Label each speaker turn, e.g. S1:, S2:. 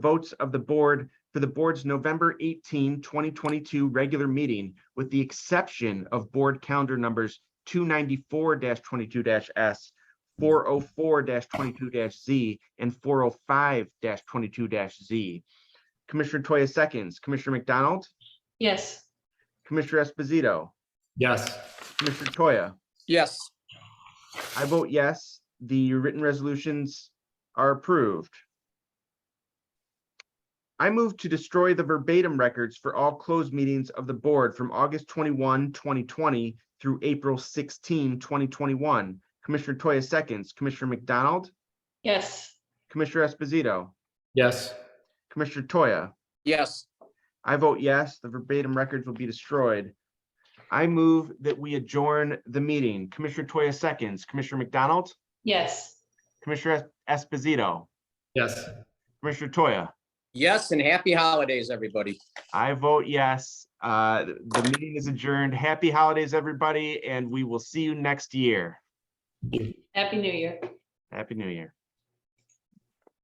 S1: votes of the board for the board's November 18, 2022 regular meeting, with the exception of board calendar numbers two ninety-four twenty-two S, four oh four twenty-two Z, and four oh five twenty-two Z. Commissioner Toya seconds, Commissioner McDonald,
S2: Yes,
S1: Commissioner Esposito,
S3: Yes.
S1: Commissioner Toya.
S4: Yes,
S1: I vote yes, the written resolutions are approved. I move to destroy the verbatim records for all closed meetings of the board from August 21, 2020 through April 16, 2021. Commissioner Toya seconds, Commissioner McDonald,
S2: yes,
S1: Commissioner Esposito,
S3: Yes.
S1: Commissioner Toya.
S4: yes,
S1: I vote yes, the verbatim records will be destroyed. I move that we adjourn the meeting. Commissioner Toya seconds, Commissioner McDonald,
S2: yes.
S1: Commissioner Es- Esposito,
S3: Yes.
S1: Commissioner Toya.
S4: yes, and happy holidays, everybody.
S1: I vote yes. Uh, The meeting is adjourned. Happy holidays, everybody, and we will see you next year.
S2: Happy New Year.
S1: Happy New Year.